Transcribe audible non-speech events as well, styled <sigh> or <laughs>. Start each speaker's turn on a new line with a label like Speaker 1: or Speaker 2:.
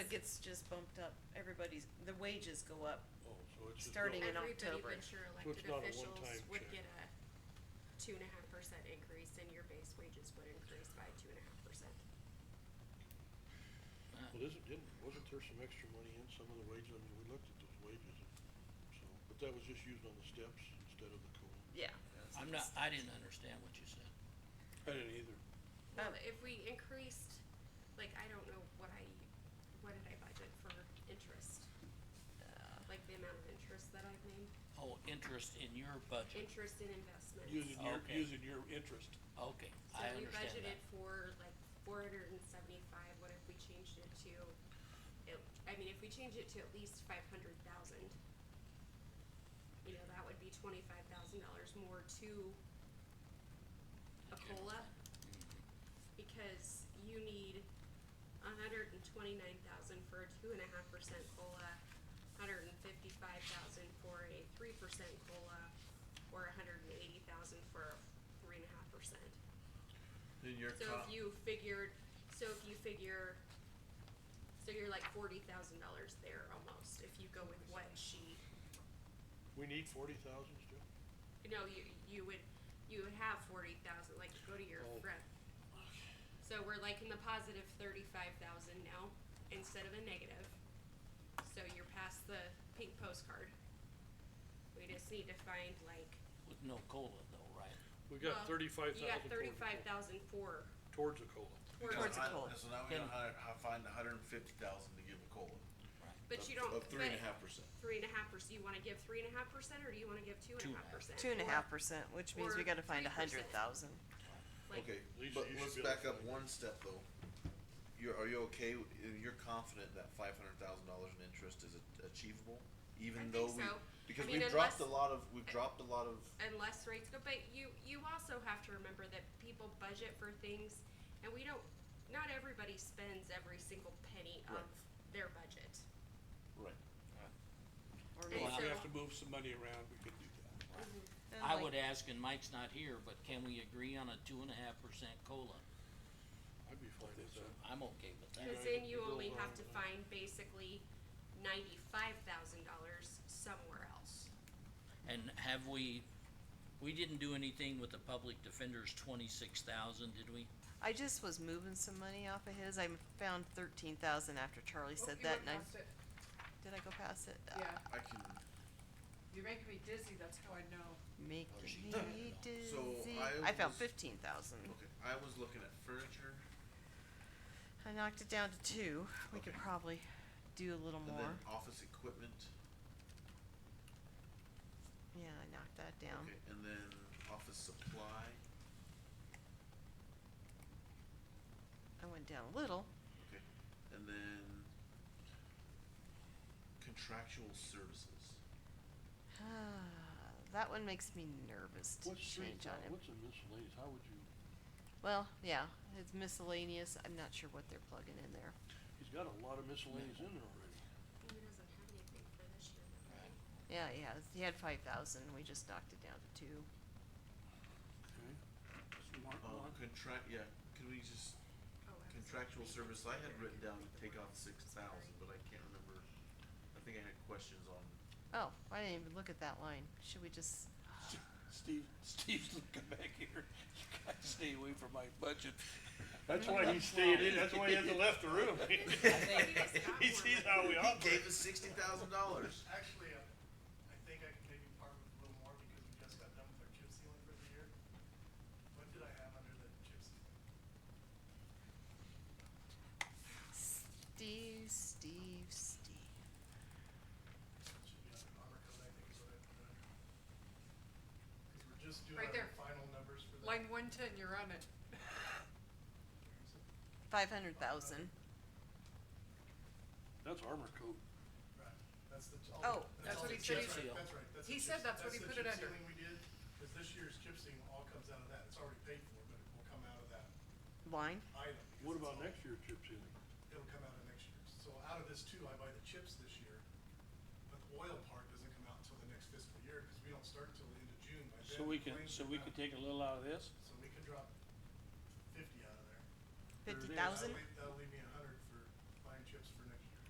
Speaker 1: it gets just bumped up, everybody's, the wages go up,
Speaker 2: Oh, so it's just.
Speaker 1: Starting in
Speaker 2: built-
Speaker 3: Everybody,
Speaker 1: October.
Speaker 3: but your
Speaker 2: So it's
Speaker 3: elected
Speaker 2: not a
Speaker 3: officials
Speaker 2: one-time
Speaker 3: would
Speaker 2: check.
Speaker 3: get a two and a half percent increase and your base wages would increase by two and a half percent.
Speaker 4: Uh,
Speaker 2: Well, isn't, didn't, wasn't there some extra money in some of the wages? I mean, we looked at those wages, and so, but that was just used on the steps instead of the COLA.
Speaker 1: yeah.
Speaker 4: I'm not, I didn't understand what you said.
Speaker 2: I didn't either.
Speaker 3: Well,
Speaker 1: Um,
Speaker 3: if we increased, like, I don't know what I, what did I budget for interest?
Speaker 1: Uh.
Speaker 3: Like the amount of interest that I've made,
Speaker 4: Oh, interest in your budget,
Speaker 3: interest in investments.
Speaker 5: Using your,
Speaker 4: Okay.
Speaker 5: using your interest.
Speaker 4: okay,
Speaker 3: So
Speaker 4: I
Speaker 3: we
Speaker 4: understand
Speaker 3: budgeted
Speaker 4: that.
Speaker 3: for like four hundred and seventy-five, what if we changed it to, it, I mean, if we change it to at least five hundred thousand, you know, that would be twenty-five thousand dollars more to a
Speaker 4: Okay.
Speaker 3: COLA, because you need a hundred and twenty-nine thousand for a two and a half percent COLA, hundred and fifty-five thousand for a three percent COLA, or a hundred and eighty thousand for a three and a half percent.
Speaker 6: Then your
Speaker 3: So
Speaker 6: co-
Speaker 3: if you figured, so if you figure, so you're like forty thousand dollars there almost, if you go with what she,
Speaker 2: We need forty thousand still?
Speaker 3: you know, you, you would, you would have forty thousand, like go to your
Speaker 2: Oh.
Speaker 3: friend. So we're like in the positive thirty-five thousand now, instead of a negative, so you're past the pink postcard. We just need to find like,
Speaker 4: With no COLA though, right?
Speaker 2: We
Speaker 3: well,
Speaker 2: got thirty-five
Speaker 3: you
Speaker 2: thousand.
Speaker 3: got thirty-five thousand for,
Speaker 2: Towards the COLA.
Speaker 3: for,
Speaker 1: Towards the
Speaker 6: I-
Speaker 1: COLA.
Speaker 6: So now we know
Speaker 4: Then-
Speaker 6: how, how to find a hundred and fifty thousand to give a COLA.
Speaker 3: but
Speaker 6: of-
Speaker 3: you don't,
Speaker 6: Of three and a
Speaker 3: but-
Speaker 6: half percent.
Speaker 3: three and a half percent, you wanna give three and a half percent, or do you wanna give two and a half percent?
Speaker 1: Two and a half percent, which means we
Speaker 3: Or
Speaker 1: gotta find a hundred
Speaker 3: 3%.
Speaker 1: thousand.
Speaker 3: Like,
Speaker 6: Okay,
Speaker 2: Lisa,
Speaker 6: but
Speaker 2: you should
Speaker 6: let's
Speaker 2: be able to
Speaker 6: back up
Speaker 2: find
Speaker 6: one step though. You're, are you okay, w- and you're confident that five hundred thousand dollars in interest is a- achievable? Even
Speaker 3: think
Speaker 6: though we,
Speaker 3: so.
Speaker 6: because
Speaker 3: I mean,
Speaker 6: we've dropped a
Speaker 3: unless-
Speaker 6: lot of, we've dropped a lot of,
Speaker 3: Unless rates go, but you, you also have to remember that people budget for things, and we don't, not everybody spends every single penny of their budget.
Speaker 1: or
Speaker 6: right.
Speaker 3: And
Speaker 5: Well, if
Speaker 1: more.
Speaker 5: we
Speaker 3: so-
Speaker 5: have to move some money around, we could do that.
Speaker 1: And
Speaker 4: I
Speaker 1: like-
Speaker 4: would ask, and Mike's not here, but can we agree on a two and a half percent COLA?
Speaker 2: I'd be fine with that.
Speaker 4: I'm okay with that.
Speaker 3: Cause
Speaker 2: Yeah,
Speaker 3: then
Speaker 2: you
Speaker 3: you
Speaker 2: go
Speaker 3: only have
Speaker 2: along
Speaker 3: to
Speaker 2: with that.
Speaker 3: find basically ninety-five thousand dollars somewhere else.
Speaker 4: And have we, we didn't do anything with the public defender's twenty-six thousand, did we?
Speaker 1: I just was moving some money off of his, I found thirteen thousand after Charlie
Speaker 7: Oh,
Speaker 1: said
Speaker 7: you
Speaker 1: that,
Speaker 7: went
Speaker 1: and I,
Speaker 7: past it.
Speaker 1: did I go past it? Ah,
Speaker 7: Yeah,
Speaker 6: I can,
Speaker 7: you're making me dizzy, that's how I know.
Speaker 1: Making
Speaker 6: Oh,
Speaker 4: she
Speaker 1: me
Speaker 4: did. No.
Speaker 6: So,
Speaker 1: dizzy,
Speaker 6: I
Speaker 1: I found
Speaker 6: was-
Speaker 1: fifteen thousand,
Speaker 6: okay, I was looking at furniture
Speaker 1: I knocked it down to two, we could
Speaker 6: Okay.
Speaker 1: probably do a little
Speaker 6: and
Speaker 1: more,
Speaker 6: then office equipment.
Speaker 1: yeah, I knocked that down.
Speaker 6: Okay, and then office supply,
Speaker 1: I went down a little,
Speaker 6: okay, and then contractual services.
Speaker 1: Ah, that one makes me nervous to
Speaker 2: What's three
Speaker 1: change on
Speaker 2: thou-
Speaker 1: him,
Speaker 2: what's a miscellaneous, how would you,
Speaker 1: well, yeah, it's miscellaneous, I'm not sure what they're plugging in there.
Speaker 2: he's got a lot of miscellaneous in there already.
Speaker 3: He doesn't have anything for this year, though, right?
Speaker 1: Yeah, he has, he had five thousand, we just knocked it down to two.
Speaker 2: Okay.
Speaker 5: Just mark
Speaker 6: Um,
Speaker 5: one.
Speaker 6: contract, yeah, could we just,
Speaker 3: Oh, I was
Speaker 6: contractual
Speaker 3: thinking
Speaker 6: service, I had
Speaker 3: they're
Speaker 6: written down
Speaker 3: gonna
Speaker 6: to
Speaker 3: do
Speaker 6: take
Speaker 3: the
Speaker 6: off six thousand, but I can't remember. I think I had questions on,
Speaker 1: Oh, I didn't even look at that line, should we just,
Speaker 5: Steve, Steve's looking back here, you gotta stay away from my budget.
Speaker 2: That's why he stayed in, that's why he hasn't left the room.
Speaker 3: Maybe that's not
Speaker 2: <laughs> He
Speaker 3: more
Speaker 2: sees
Speaker 3: money.
Speaker 2: how we
Speaker 6: he
Speaker 2: operate.
Speaker 6: gave us sixty thousand dollars.
Speaker 8: Actually, uh, I think I can maybe part with a little more because we just got done with our chip sealing for the year. What did I have under the chip sealing?
Speaker 1: Steve, Steve, Steve?
Speaker 8: It Should be under armor code, I think is what I put under. Because we're just doing
Speaker 7: Right
Speaker 8: our
Speaker 7: there.
Speaker 8: final numbers for the.
Speaker 7: Line one ten, you're on it.
Speaker 1: Five hundred thousand.
Speaker 2: That's armor coat.
Speaker 8: Right, that's the. all
Speaker 1: Oh,
Speaker 8: the-
Speaker 7: that's
Speaker 8: all
Speaker 7: what
Speaker 8: the
Speaker 7: he said
Speaker 4: he-
Speaker 8: chip seal. That's right, that's.
Speaker 7: He
Speaker 8: the
Speaker 7: said
Speaker 8: chip-
Speaker 7: that's what he
Speaker 8: the
Speaker 7: put it
Speaker 8: chip
Speaker 7: under.
Speaker 8: sealing we did, because this year's chip sealing all comes out of that. It's already paid for, but it will come out of that
Speaker 1: Line?
Speaker 8: item. because
Speaker 2: What
Speaker 8: it's
Speaker 2: about
Speaker 8: all-
Speaker 2: next year's chip sealing?
Speaker 8: it'll come out of next year's. So out of this too, I buy the chips this year, but the oil part doesn't come out until the next fiscal year, cause we don't start till the end of June by then.
Speaker 5: So we can,
Speaker 8: claims
Speaker 5: so
Speaker 8: are
Speaker 5: we
Speaker 8: done.
Speaker 5: could take a little out of this?
Speaker 8: So we could drop fifty out of there.
Speaker 1: Fifty
Speaker 8: That'll
Speaker 1: thousand?
Speaker 8: leave- That'll leave me a